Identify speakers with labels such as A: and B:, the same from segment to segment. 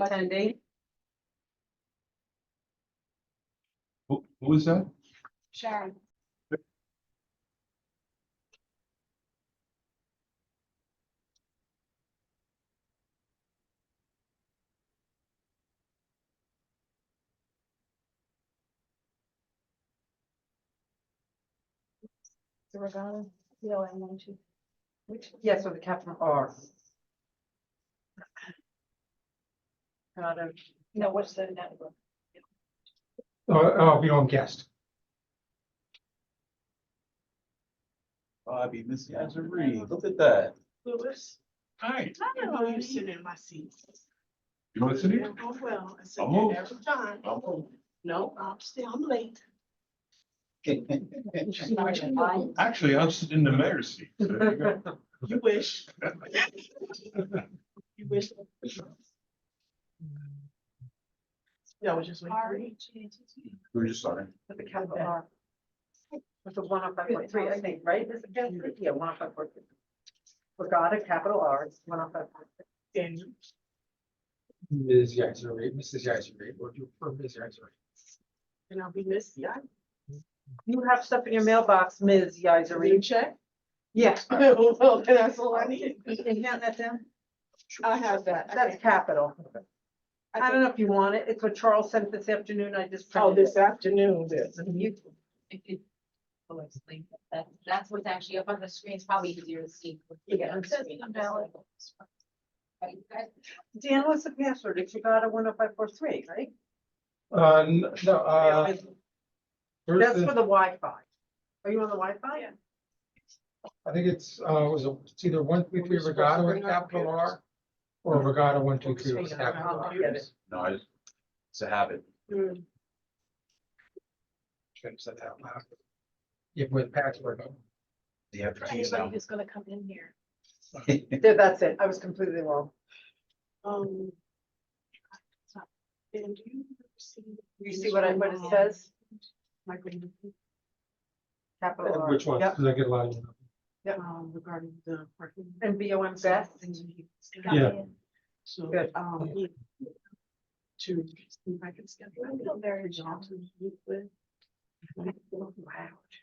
A: attending.
B: Who, who is that?
C: Sharon. The regatta, the O N one two. Which,
A: Yes, with a capital R. Not a-
C: no, what's the network?
D: Uh, I'll be on guest.
B: Bobby, Miss Yazaree, look at that.
E: Lewis.
B: Hi.
E: I know you sitting in my seat.
B: You want to sit here?
E: Oh, well, I said
B: I'm
E: that
B: old.
E: every time. No, I'm still, I'm late.
C: Why?
B: Actually, I'm sitting in the mayor's seat. so there you go.
E: You wish. You wish. Yeah, I was just waiting for
C: E
E: you.
B: We We're just starting.
A: With a capital R. With a one oh five point three, I think, right? Is it capital? Yeah, one oh five point three. Regatta, capital R, it's one oh five point three.
E: And
D: Ms. Yaisner, Mrs. Yaisner, or you, or Ms. Yaisner.
E: and I'll be missed, yeah.
A: You have stuff in your mailbox, Ms.
E: Did you
A: Yizeri.
E: check?
A: Yes.
E: Well, that's all I need.
A: Can you hand that down?
E: I have that. I
A: That's
E: think-
A: capital. I don't
E: think-
A: know if you want it. It's what Charles sent this afternoon. I just.
E: Oh,
A: printed it.
E: this afternoon, this.
F: It could, will explain that. that, that's what's actually up on the screen, it's probably easier to see.
E: Yeah.
F: It says invalid. But you guys-
A: Dan, what's the password? It's regatta one oh five four three, right?
D: Uh, n- no, uh. there's
A: That's
D: the-
A: for the Wi-Fi. Are you on the Wi-Fi?
E: Yeah.
D: I think it's, uh, was it- it's either one, three, three regatta with capital R. Or regatta one, two, three with capital R.
A: I'll get it.
B: No, I just, it's a habit.
E: Mm,
D: Should have said that out loud. Yeah, with password.
B: They have keys
C: Anybody
B: now.
C: who's gonna come in here.
A: There, that's it. I was completely wrong.
E: Um. And do you see?
A: You see what I, what it says?
E: My green.
A: Capital R.
D: Which one?
A: Yep.
D: Because I get a lot of.
E: um, regarding the parking.
A: And B O M Beth.
D: Yeah.
E: So,
A: Good.
E: um. To, see if I can schedule, I feel very John to meet with. Wow.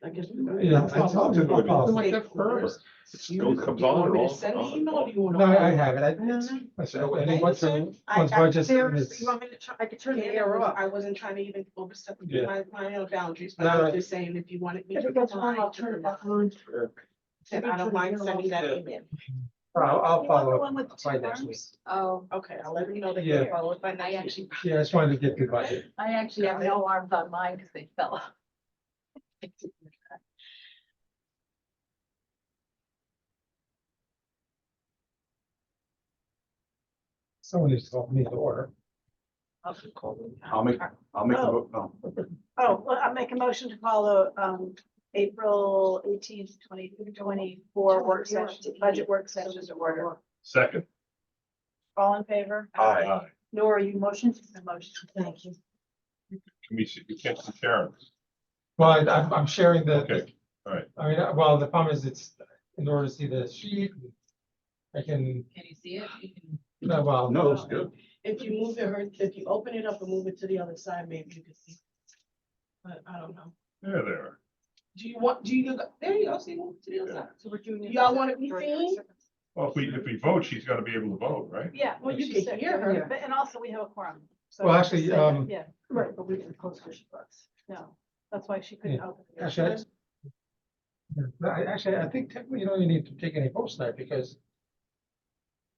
E: I guess.
D: Yeah, I told you. I want that first.
B: It's no
E: Want
B: compliant
E: me to
B: all-
E: Send an
B: all-
E: email, or do you want?
D: No, I I have it.
E: No,
D: I,
E: no.
D: I said, oh, and what's, the-
E: I-
D: what's
E: I-
D: budget?
A: There's,
D: is-
A: you want me to, try- I could turn the
E: Yeah,
A: air off.
E: I wasn't trying to even overstep
D: Yeah.
E: my, my own boundaries, but
D: No,
E: I
D: no.
E: was just saying if you wanted me to. reply,
C: on.
E: And I don't mind sending that email.
D: I'll,
C: You want
D: I'll
C: the
D: follow
C: one with
D: up by
C: two
D: next week.
C: arms?
F: Oh,
E: Okay, I'll let you know that
D: Yeah.
E: you follow it by
F: I
E: next
F: actually,
E: week.
D: Yeah, I just wanted to get the budget.
F: I actually have no arms on mine because they fell off.
D: Someone needs to help me to order.
B: I'll make, I'll make the vote, no.
C: Oh, well, I make a motion to call a, um, April eighteenth, twenty, twenty-four work session, budget work session to order.
B: Second.
C: All in favor?
B: Aye.
C: Nora, you motion? Motion. Thank you.
B: Can we, see- you can't see Sharon.
D: Well, I- I'm, I'm sharing the,
B: Okay, all right.
D: I mean, uh, well, the problem is it's, in order to see the sheet. I can,
F: Can you see it? You can-
D: no, well,
B: No, it's good.
E: If you move it, or if you open it up and move it to the other side, maybe you could see. But I don't know.
B: There, there.
E: Do you want, do you, there you go, see, move it to the other side.
A: So we're doing. it-
E: Y'all wanna be seen?
B: Well, if we, if we vote, she's gotta be able to vote, right?
C: Yeah,
E: Well,
C: well,
E: you
C: you
E: can
C: can
E: hear her.
C: but, and also we have a quorum. so-
D: Well, actually, um,
C: Yeah,
A: Right, but we can post her books.
C: no, that's why she couldn't
D: Yeah.
C: open. it.
D: actually. I- No, I, actually, I think technically you don't even need to take any post tonight because.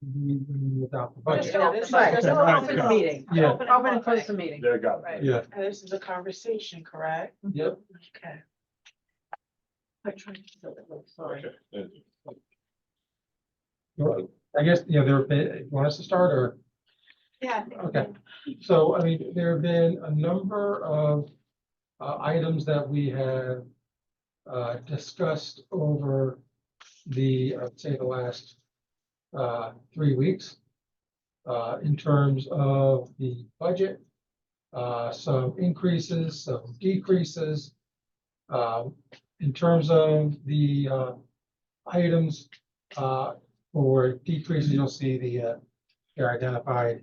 D: We, we adopt the
C: Just
D: budget.
C: open
E: this is
C: it.
E: just
D: an
A: open
E: open
A: meeting.
D: Yeah.
C: Open
A: Open and
C: close
A: close the meeting.
B: There, got
C: Right.
D: Yeah,
E: And this is a conversation, correct?
D: yep.
E: Okay. I'm trying to fill it, I'm sorry.
B: Okay. there.
D: Well, I guess, you know, there, have been- you want us to start or?
C: Yeah. I think we
D: Okay.
C: can.
D: So, I mean, there have been a number of uh, items that we have uh, discussed over the, I'd say, the last uh, three weeks uh, in terms of the budget, uh, some increases, some decreases. Um, In terms of the uh, items uh, for decreases, you'll see the, uh, they're identified